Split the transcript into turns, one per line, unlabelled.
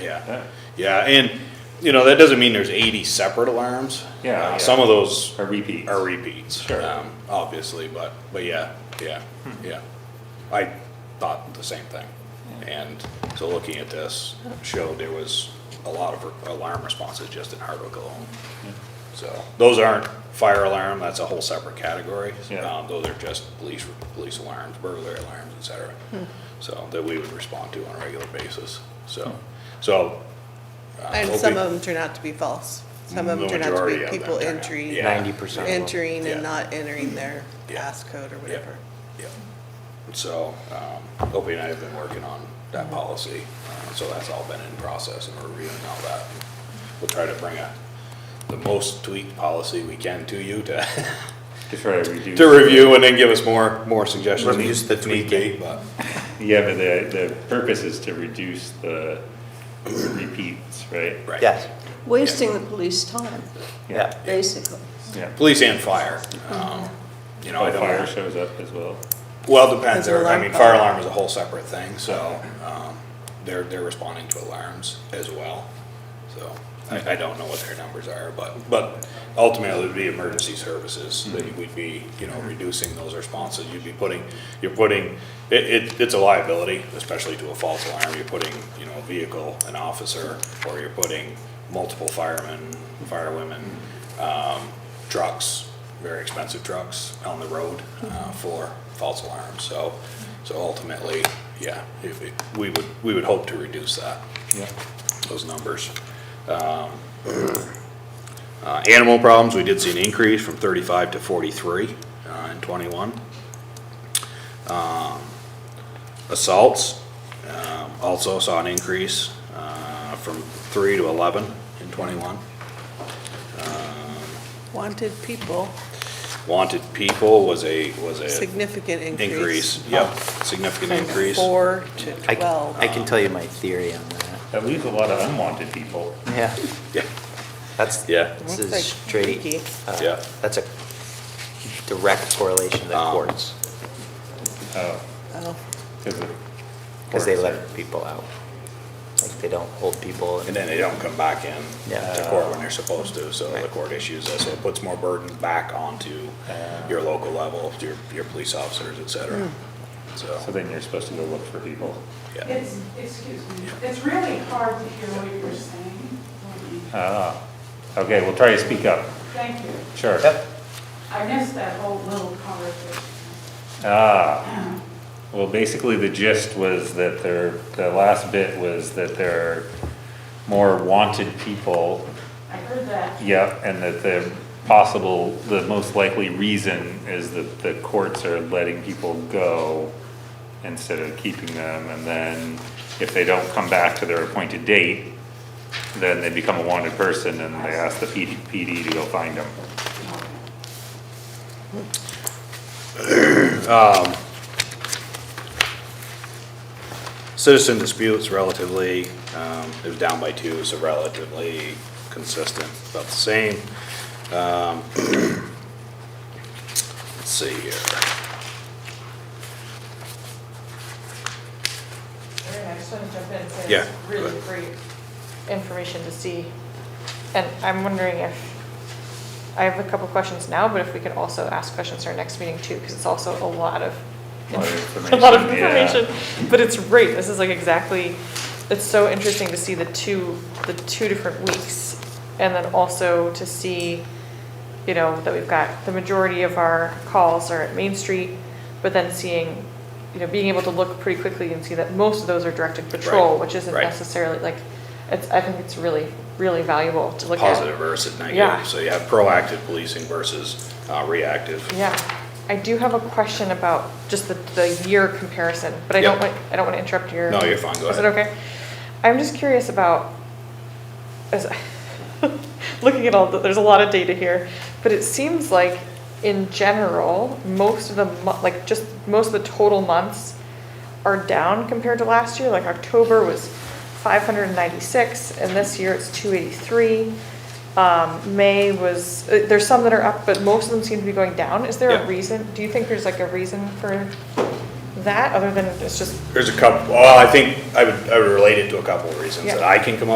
Yeah,
Yeah.
yeah, and, you know, that doesn't mean there's eighty separate alarms.
Yeah,
Uh,
yeah.
Some of those
A repeat.
are repeats.
Sure. Hmm.
um, Obviously, but, but yeah, yeah, yeah. I thought the same thing. And so looking at this showed there was a lot of alarm responses just in Hardwick alone. So those aren't fire alarm, that's a whole separate category.
Yeah.
Um, Those are just police, police alarms, burglary alarms, et cetera.
Hmm.
So that we would respond to on a regular basis, so,
Hmm.
so. uh,
And
we'll
some
be-
of them turn out to be false. Some of them
The
turn out to
majority
be
of them
people
turn out,
entering,
yeah.
ninety percent of them.
entering
Yeah.
and not entering their
Yeah.
passcode or whatever.
Yeah. So, um, Opie and I have been working on that policy, uh, so that's all been in process and we're reviewing all that. We'll try to bring a, the most tweaked policy we can to you to,
To try to reduce.
to review and then give us more, more suggestions.
Reduce the
if need be, But,
Yeah, but the, the purpose is to reduce the repeats, right?
right.
Yes,
Wasting the police time,
yeah.
basically.
Yeah.
Police and fire, um, you know, I
Oh, fire
don't,
shows up as well.
well, it depends,
Is it
I
alarm
mean,
fire?
fire alarm is a whole separate thing, so, um, they're, they're responding to alarms as well. So, I, I don't know what their numbers are, but, but ultimately it'd be emergency services, that we'd be, you know, reducing those responses, you'd be putting, you're putting, it, it, it's a liability, especially to a false alarm, you're putting, you know, a vehicle, an officer, or you're putting multiple firemen, firewomen, trucks, very expensive trucks on the road uh, for false alarms. So, so ultimately, yeah, if it- we would, we would hope to reduce that,
Yeah.
those numbers. Um, uh, Animal problems, we did see an increase from 35 to 43 uh, in '21. Assaults, um, also saw an increase uh, from 3 to 11 in '21.
Wanted people,
Wanted people was a, was a.
significant increase.
Increase, yep, significant
From
increase.
Four to
I,
twelve.
I can tell you
um,
my theory on that.
That leaves a lot of unwanted people.
Yeah,
Yeah,
that's,
Yeah.
this
Looks
is
like
straight,
freaky.
uh,
Yeah.
that's a direct correlation to the
Um,
courts,
Oh,
Oh,
because of.
because they
courts.
let people out. Like, they don't hold people,
and
and
then they don't come back in
Yeah.
to court when they're supposed to, so the court issues that, so it puts more burden back onto your local level, your, your police officers, et cetera.
So
So,
then you're supposed to go look for people.
yeah,
It's, excuse me, it's really hard to hear what you're saying.
Ah, okay, we'll try to speak up.
Thank you.
Sure.
Yep.
I missed that whole little conversation.
Ah, well, basically the gist was that there, the last bit was that there are more wanted people.
I heard that.
Yep, and that the possible, the most likely reason is that the courts are letting people go instead of keeping them, and then if they don't come back to their appointed date, then they become a wanted person and they ask the PD, PD to go find them.
citizen disputes relatively, um, it was down by two, so relatively consistent, about the same. Um, Let's see here.
Erin, I just want to jump in and say
Yeah,
it's
go
really
ahead.
great information to see. And I'm wondering if, I have a couple questions now, but if we could also ask questions at our next meeting too, because it's also a lot of,
A lot of
a lot of
information, yeah.
information. But it's great, this is like exactly, it's so interesting to see the two, the two different weeks. And then also to see, you know, that we've got, the majority of our calls are at Main Street, but then seeing, you know, being able to look pretty quickly and see that most of those are directed patrol,
Right,
which isn't
right.
necessarily, like, it's, I think it's really, really valuable to look at.
positive versus
Yeah.
negative. So you have proactive policing versus uh, reactive.
Yeah, I do have a question about just the, the year comparison, but I don't
Yeah.
want, I don't want to interrupt your.
No, you're fine, go
Is it
ahead.
okay? I'm just curious about, as, looking at all, the- there's a lot of data here, but it seems like in general, most of the, mo- like just most of the total months are down compared to last year, like October was five hundred and ninety-six, and this year it's two eighty-three. Um, May was, uh, there's some that are up, but most of them seem to be going down. Is there
Yeah.
a reason? Do you think there's like a reason for that, other than it's just
There's a couple, well, I think I would, I would relate it to a couple of reasons
Yeah.
that I can come up.